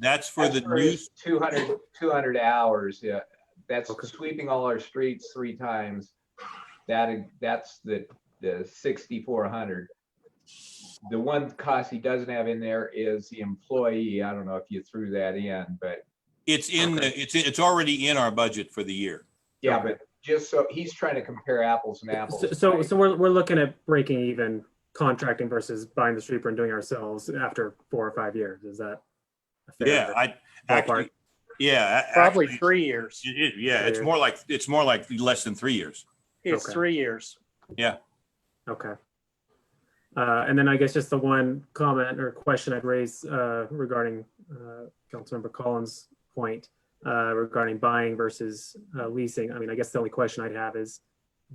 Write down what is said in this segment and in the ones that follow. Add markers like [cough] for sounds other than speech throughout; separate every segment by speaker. Speaker 1: That's for the new,
Speaker 2: news, 200, 200 hours, yeah. That's
Speaker 3: Okay.
Speaker 2: sweeping all our streets three times. That, that's the, the 6,400. The one cost he doesn't have in there is the employee. I don't know if you threw that in, but
Speaker 1: it's in, the it's, it's already in our budget for the year.
Speaker 2: yeah,
Speaker 3: Okay.
Speaker 2: but just so, he's trying to compare apples and apples.
Speaker 3: So- So,
Speaker 2: right?
Speaker 3: so we're, we're looking at breaking even contracting versus buying the sweeper and doing ourselves after four or five years. Is that? a fair
Speaker 1: Yeah, I,
Speaker 3: ballpark?
Speaker 1: actually, yeah. a-
Speaker 4: Probably
Speaker 1: actually,
Speaker 4: three years.
Speaker 1: it- it- Yeah, it's
Speaker 3: Three
Speaker 1: more like, it's more like less than three years.
Speaker 4: It's
Speaker 3: Okay.
Speaker 4: three years.
Speaker 3: Okay. Uh, and then I guess just the one comment or question I'd raise uh, regarding uh, Councilmember Collins' point uh, regarding buying versus uh, leasing. I mean, I guess the only question I'd have is,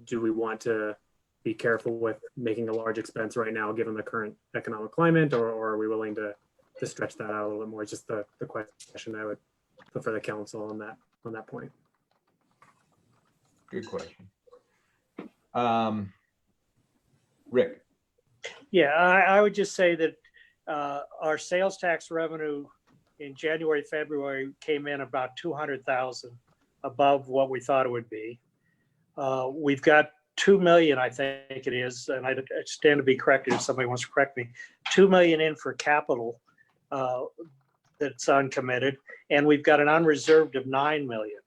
Speaker 3: do we want to be careful with making a large expense right now, given the current economic climate, or, or are we willing to to stretch that out a little bit more? It's Just the, the question I would put for the council on that on that point.
Speaker 2: Good question. Um, Rick,
Speaker 4: Yeah, I, I would just say that uh, our sales tax revenue in January, February came in about two hundred thousand above what we thought it would be. Uh, We've got two million, I think it is, and I I stand to be corrected if somebody wants to correct me, two million in for capital uh, that's uncommitted, and we've got an unreserved of nine million.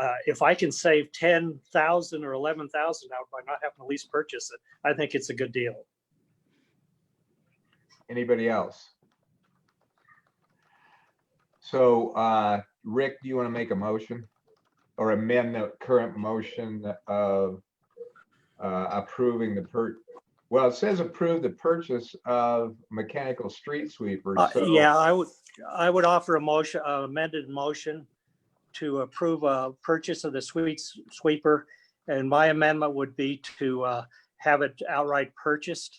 Speaker 4: Uh, If I can save ten thousand or eleven thousand out by not having to lease purchase it, I think it's a good deal.
Speaker 2: anybody else? So, uh, Rick, do you want to make a motion? Or amend the current motion of uh, approving the per, well, it says approve the purchase of mechanical street sweepers.
Speaker 4: Uh,
Speaker 2: so-
Speaker 4: Yeah, I would, I would offer a motion, a amended motion to approve a purchase of the sweets sweeper. And my amendment would be to uh, have it outright purchased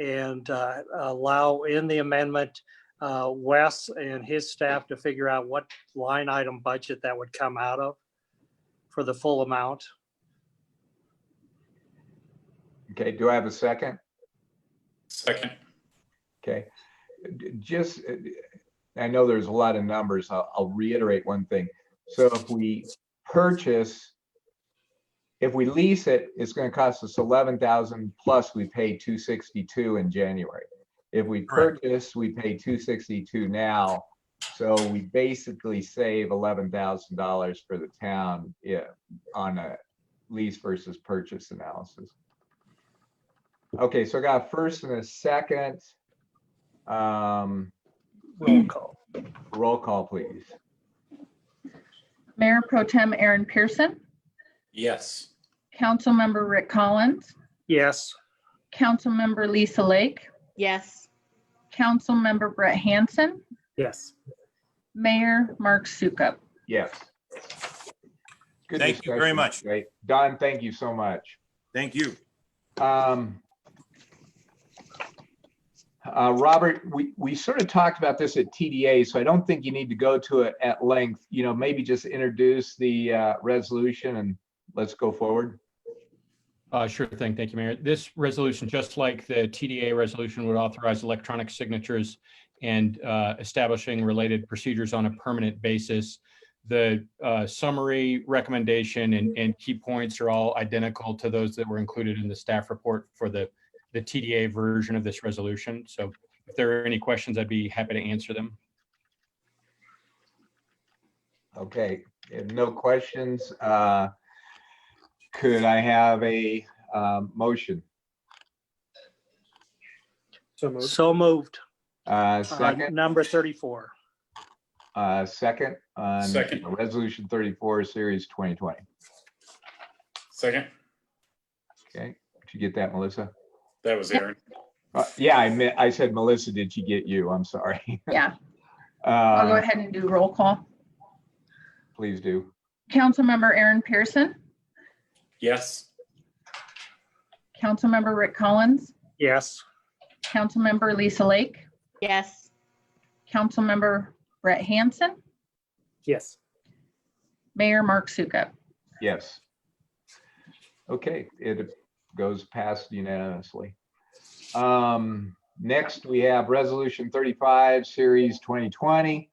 Speaker 4: and uh, allow in the amendment uh, Wes and his staff to figure out what line item budget that would come out of for the full amount.
Speaker 2: Okay, do I have a second?
Speaker 5: Second.
Speaker 2: Okay, D- just, uh, I know there's a lot of numbers. I'll, I'll reiterate one thing. So if we purchase, if we lease it, it's gonna cost us eleven thousand plus we pay two sixty-two in January. If we
Speaker 1: Correct.
Speaker 2: purchase, we pay two sixty-two now. So we basically save eleven thousand dollars for the town, yeah, on a lease versus purchase analysis. Okay, so I got a first and a second. Um,
Speaker 4: Roll call.
Speaker 2: roll call, please.
Speaker 6: Mayor Pro Tem Aaron Pearson,
Speaker 5: Yes.
Speaker 6: Councilmember Rick Collins,
Speaker 4: Yes,
Speaker 6: Councilmember Lisa Lake,
Speaker 7: Yes,
Speaker 6: Councilmember Brett Hanson,
Speaker 3: Yes.
Speaker 6: Mayor Mark Sukup.
Speaker 2: Yes. Good
Speaker 1: Thank you very
Speaker 2: discussion.
Speaker 1: much.
Speaker 2: Great. Don, thank you so much.
Speaker 1: Thank you.
Speaker 2: Um, uh, Robert, we, we sort of talked about this at TDA, so I don't think you need to go to it at length. You know, maybe just introduce the, uh, resolution and let's go forward.
Speaker 8: Uh, sure thing. Thank you, Mayor. This resolution, just like the TDA resolution, would authorize electronic signatures and uh, establishing related procedures on a permanent basis. The uh, summary recommendation and, and key points are all identical to those that were included in the staff report for the, the TDA version of this resolution. So if there are any questions, I'd be happy to answer them.
Speaker 2: Okay, if no questions, uh, could I have a, um, motion?
Speaker 3: So moved.
Speaker 4: so moved.
Speaker 2: Uh,
Speaker 4: Uh,
Speaker 2: second?
Speaker 4: Number thirty-four.
Speaker 2: Uh, second on
Speaker 5: Second.
Speaker 2: uh, Resolution thirty-four, series twenty twenty.
Speaker 5: Second.
Speaker 2: Okay, did you get that, Melissa?
Speaker 5: That was Aaron.
Speaker 2: Uh, yeah, I meant, I said, Melissa, did she get you? I'm sorry. [laughs]
Speaker 6: Yeah, I'll go
Speaker 2: Uh,
Speaker 6: ahead and do roll call.
Speaker 2: please do.
Speaker 6: Councilmember Aaron Pearson,
Speaker 5: Yes.
Speaker 6: Councilmember Rick Collins,
Speaker 4: Yes,
Speaker 6: Councilmember Lisa Lake,
Speaker 7: yes,
Speaker 6: Councilmember Brett Hanson,
Speaker 3: Yes.
Speaker 6: Mayor Mark Sukup.
Speaker 2: Yes. Okay, it goes past unanimously. Um, Next, we have Resolution 35, Series 2020,